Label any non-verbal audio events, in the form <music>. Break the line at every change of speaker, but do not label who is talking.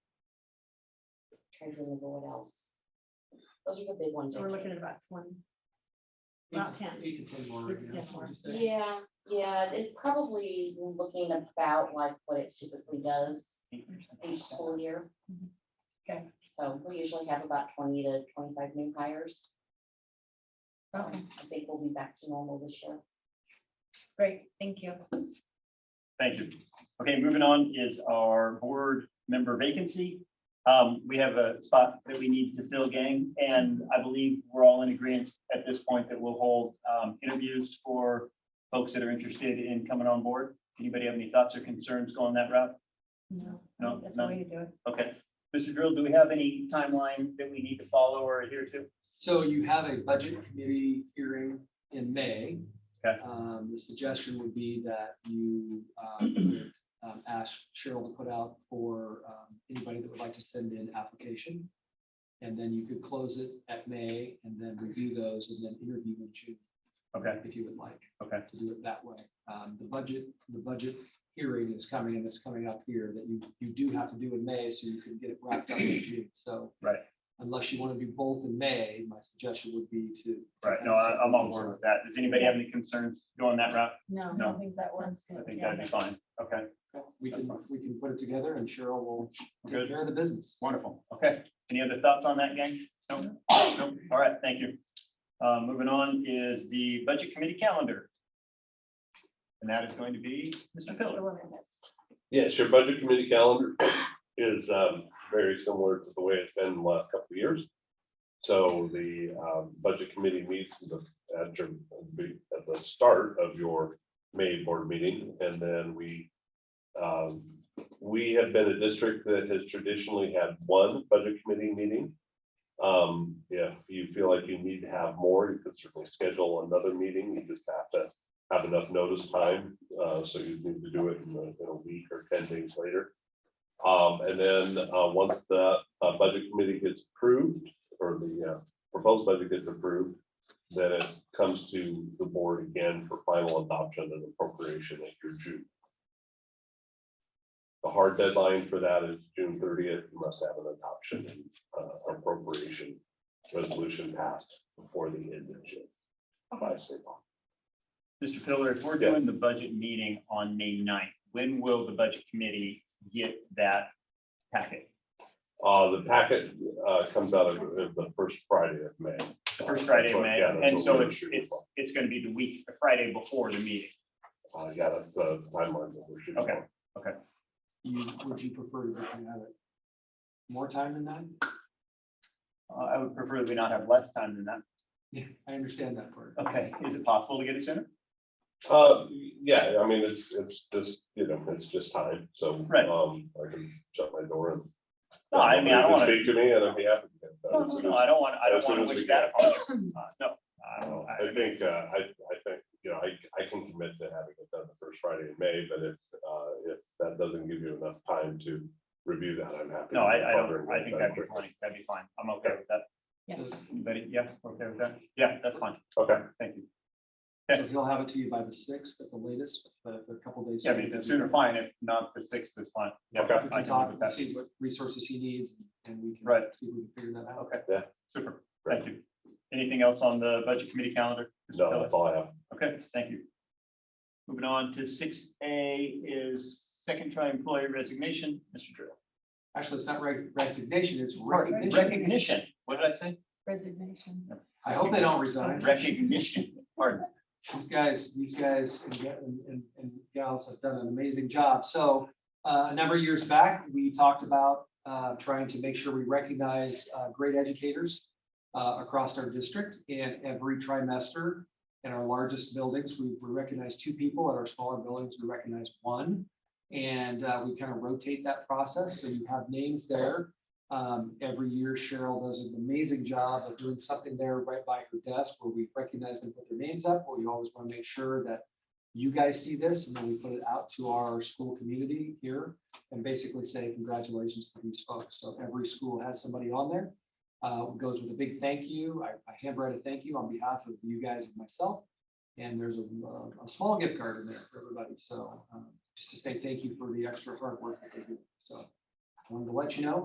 treasurer and no one else. Those are the big ones.
So
I
we're
think.
looking at about twenty.
Eight
About
to-
10.
Eight to ten more right
Eight to
now.
10 more.
Just that.
Yeah, yeah, it probably looking about like what it typically does each school year.
Okay.
So we usually have about twenty to twenty-five new hires. Um,
Okay.
I think we'll be back to normal this year.
Great, thank you.
Thank you. Okay, moving on is our board member vacancy. Um, we have a spot that we need to fill, gang, and I believe we're all in agreement at this point that we'll hold, um, interviews for folks that are interested in coming on board. Anybody have any thoughts or concerns going that route?
No,
No,
That's the
no.
way to do it.
Okay. Mr. Drill, do we have any timeline that we need to follow or adhere to?
So you have a budget committee hearing in May.
Okay.
Um, the suggestion would be that you,
<clears throat>
um, would, um, ask Cheryl to put out for, um, anybody that would like to send in application. And then you could close it at May and then review those and then interview in June
Okay,
if you would like.
Okay.
To do it that way. Um, the budget, the budget hearing is coming and it's coming up here that you, you do have to do in May, so you can get it wrapped up in June, so.
Right.
Unless you want to do both in May, my suggestion would be to.
right, no, I- I'm on board with that. Does anybody have any concerns going that route?
No, I
No.
don't think that works.
I think
Yeah.
that'd be fine. Okay,
We can, we can put it together and Cheryl will
we're good.
take care of the business.
Wonderful. Okay. Any other thoughts on that, gang? No? No? All right, thank you. Uh, moving on is the budget committee calendar. And that is going to be Mr.
The
Pillar.
one I missed.
Yes, your budget committee calendar is um, very similar to the way it's been the last couple of years. So the um, budget committee meets at the- at your- at the start of your May board meeting, and then we um, we have been a district that has traditionally had one budget committee meeting. Um, If you feel like you need to have more, you could certainly schedule another meeting. You just have to have enough notice time, uh, so you need to do it in a, in a week or ten days later. Um, and then, uh, once the, uh, budget committee gets approved, or the, uh, proposed budget gets approved, then it comes to the board again for final adoption and appropriation at your June. The hard deadline for that is June thirtieth, you must have an adoption, and, uh, appropriation resolution passed before the end of June. By state law.
Mr. Pillar, if we're doing the budget meeting on May 9th, when will the budget committee get that packet?
Uh, the packet, uh, comes out of of the first Friday of May.
The first Friday of May.
Uh, Yeah, that's
And
what
so
we're
it's,
shooting
it's, it's going to be the week, the Friday before the meeting.
for. Uh, yeah, that's the timeline that we're shooting
Okay.
for.
You, would you prefer to have it more time than that?
Uh, I would prefer that we not have less time than that.
Yeah, I understand that part.
Okay, is it possible to get it sooner?
Uh, yeah, I mean, it's, it's just, you know, it's just time, so.
Right.
Um, I can shut my door and.
No, I mean, I don't want to.
Speak to me and I'd be happy. to get that.
No, no, no, I don't want, I don't
As soon
want
as
to
we
wish that upon you. Uh, No, I don't. I-
I think, uh, I, I think, you know, I, I can commit to having it done the first Friday in May, but if, uh, if that doesn't give you enough time to review that, I'm happy.
No,
to
I, I
cover
don't,
it
I think
that
that'd be
quickly.
fine, that'd be fine, I'm okay with that.
Yeah.
Anybody, yeah, okay with that, yeah, that's fine,
Okay.
thank you.
So he'll have it to you by the sixth at the latest, but a couple days.
Yeah, I mean, the sooner fine, if not the sixth is fine. Yeah,
Okay.
I
We
can
can
talk
talk
with
and
that,
see what resources he needs and we can.
Right.
See if we can figure that out.
okay.
Yeah.
Super,
Right.
thank you. Anything else on the budget committee calendar? Mr.
No,
Kelly?
that's all I have.
Okay, thank you. Moving on to six A is second try employee resignation, Mr. Drill.
Actually, it's not reg- resignation, it's recognition.
Recognition, what did I say?
Resignation.
I hope they don't resign.
Recognition, pardon.
These guys, these guys and ga- and- and and gals have done an amazing job. So uh, a number of years back, we talked about uh, trying to make sure we recognize uh, great educators uh, across our district and every trimester in our largest buildings, we we recognize two people. At our smaller buildings, we recognize one. And uh, we kind of rotate that process. So you have names there. Um, every year Cheryl does an amazing job of doing something there right by her desk where we recognize them, put their names up, but we always want to make sure that you guys see this and then we put it out to our school community here and basically say congratulations to these folks. So every school has somebody on there. Uh, it goes with a big thank you. I, I handwrite a thank you on behalf of you guys and myself. And there's a, uh, a small gift card in there for everybody. So, um, just to say thank you for the extra hard work that they do. So I wanted to let you know,